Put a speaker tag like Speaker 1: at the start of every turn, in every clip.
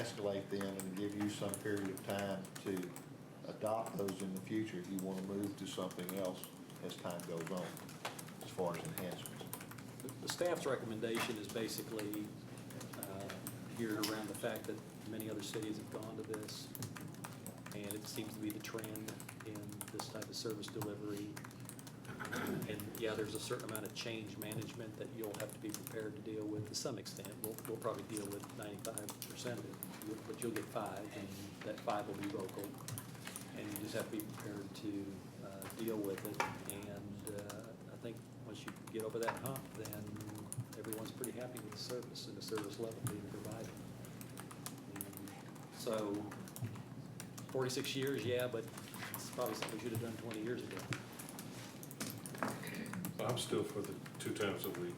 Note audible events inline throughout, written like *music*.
Speaker 1: escalate them and give you some period of time to adopt those in the future if you want to move to something else as time goes on, as far as enhancements.
Speaker 2: The staff's recommendation is basically uh, geared around the fact that many other cities have gone to this, and it seems to be the trend in this type of service delivery. And yeah, there's a certain amount of change management that you'll have to be prepared to deal with to some extent. We'll, we'll probably deal with 95% of it, but you'll get five, and that five will be local and you just have to be prepared to uh, deal with it. And uh, I think once you get over that hump, then everyone's pretty happy with the service and the service level being provided. So 46 years, yeah, but it's probably something we should have done 20 years ago.
Speaker 3: I'm still for the two times a week.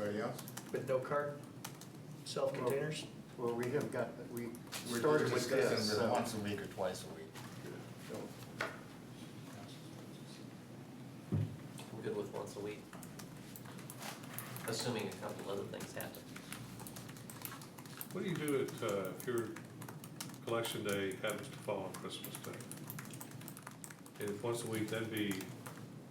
Speaker 4: Anybody else?
Speaker 5: But no cart, self-containers?
Speaker 6: Well, we have got, we
Speaker 4: We're
Speaker 6: started with
Speaker 4: discussing
Speaker 6: this,
Speaker 4: the
Speaker 6: so-
Speaker 4: Once a week or twice a week.
Speaker 6: so
Speaker 7: I'm good with once a week, assuming a couple other things happen.
Speaker 3: What do you do if, uh, if your collection day happens to fall on Christmas Day? And if once a week, that'd be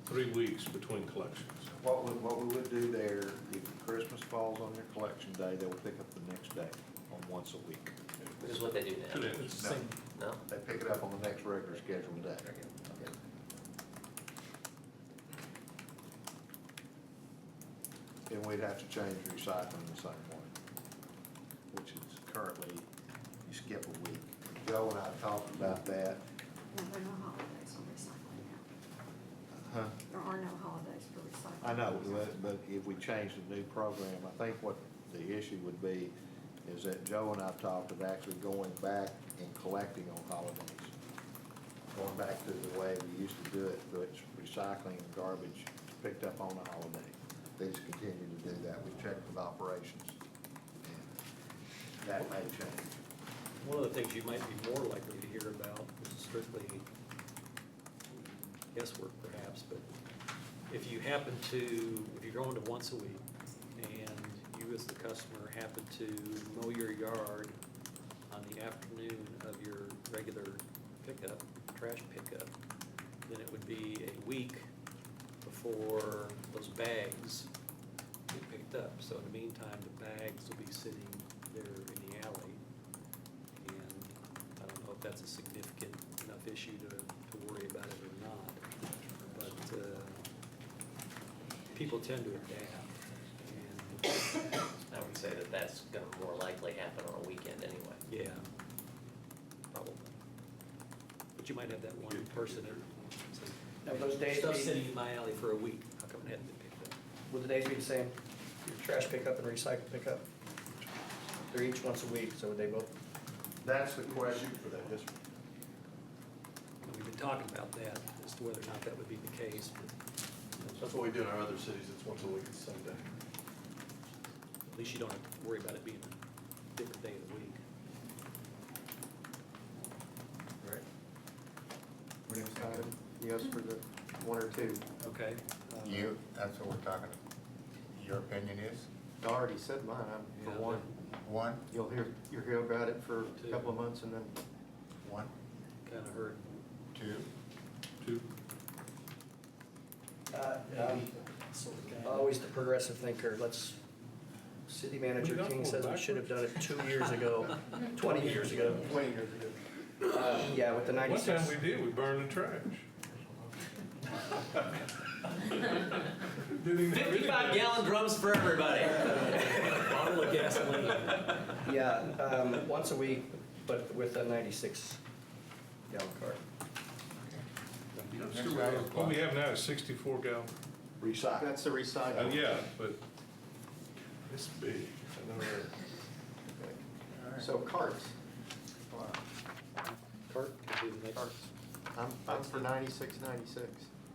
Speaker 3: three weeks between collections.
Speaker 1: What we, what we would do there, if Christmas falls on your collection day, they will pick up the next day on once a week.
Speaker 7: Which is what they do now.
Speaker 3: Today.
Speaker 2: It's the same-
Speaker 7: No?
Speaker 1: They pick it up on the next regular scheduled day. And we'd have to change recycling the same way, which is currently, you skip a week. Joe and I talked about that.
Speaker 8: No, there are no holidays on recycling now.
Speaker 1: Huh?
Speaker 8: There are no holidays for recycling.
Speaker 1: I know, but, but if we change the new program, I think what the issue would be is that Joe and I've talked of actually going back and collecting on holidays. Going back to the way we used to do it, which recycling and garbage picked up on a holiday. They just continue to do that. We checked with operations. and That may change.
Speaker 2: One of the things you might be more likely to hear about is strictly guesswork perhaps, but if you happen to, if you're going to once a week and you as the customer happen to mow your yard on the afternoon of your regular pickup, trash pickup, then it would be a week before those bags get picked up. So in the meantime, the bags will be sitting there in the alley. And I don't know if that's a significant enough issue to, to worry about it or not. But uh, people tend to adapt. And
Speaker 7: I would say that that's going to more likely happen on a weekend anyway.
Speaker 2: yeah, probably. But you might have that one person that says,
Speaker 5: Now, those days
Speaker 2: Stuff
Speaker 5: be-
Speaker 2: sitting in my alley for a week. How come it hadn't been picked up?
Speaker 5: Would the days be the same? Your trash pickup and recycle pickup? They're each once a week, so would they both?
Speaker 1: That's the question for that district.
Speaker 2: And We've been talking about that as to whether or not that would be the case, but
Speaker 9: That's what we do in our other cities, it's once a week, it's Sunday.
Speaker 2: at least you don't have to worry about it being a different day of the week.
Speaker 4: Right.
Speaker 6: Next item, yes, for the one or two.
Speaker 2: Okay. uh,
Speaker 4: You, that's what we're talking, your opinion is?
Speaker 6: I already said mine, I'm
Speaker 2: Yeah.
Speaker 6: for one.
Speaker 4: One,
Speaker 6: You'll hear, you'll hear about it for
Speaker 2: Two.
Speaker 6: a couple of months and then
Speaker 4: one,
Speaker 2: Kind of hurt.
Speaker 4: two,
Speaker 3: Two,
Speaker 5: Uh, um, Always the progressive thinker, let's, city manager King says we should have done it two years ago, 20 years ago.
Speaker 9: Twenty years ago.
Speaker 5: Uh, Yeah, with the
Speaker 3: one
Speaker 5: 96.
Speaker 3: time we did, we burned the trash. Didn't even-
Speaker 7: Fifty-five gallon drums for everybody.
Speaker 2: *laughs* Bottle of gasoline.
Speaker 5: Yeah, um, once a week, but with a 96 gallon cart.
Speaker 3: I'm sure we- What we have now is sixty-four gallon.
Speaker 1: Recycle.
Speaker 6: that's the
Speaker 3: Uh,
Speaker 4: Oh,
Speaker 6: recycle.
Speaker 3: yeah, but
Speaker 9: It's big, I know that.
Speaker 6: So carts.
Speaker 2: Cart could be the next.
Speaker 6: I'm, I'm for ninety-six, ninety-six.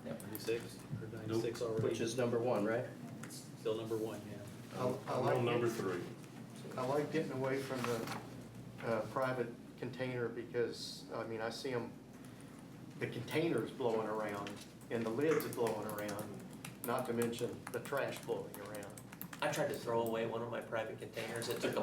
Speaker 2: Ninety-six. Or ninety-six already.
Speaker 5: Which is number one, right?
Speaker 2: Still number one, yeah.
Speaker 6: I- I
Speaker 3: I'm
Speaker 6: like
Speaker 3: on number
Speaker 6: it.
Speaker 3: three.
Speaker 6: I like getting away from the uh, private container because, I mean, I see them, the container's blowing around and the lids are blowing around, not to mention the trash blowing around.
Speaker 7: I tried to throw away one of my private containers, it took a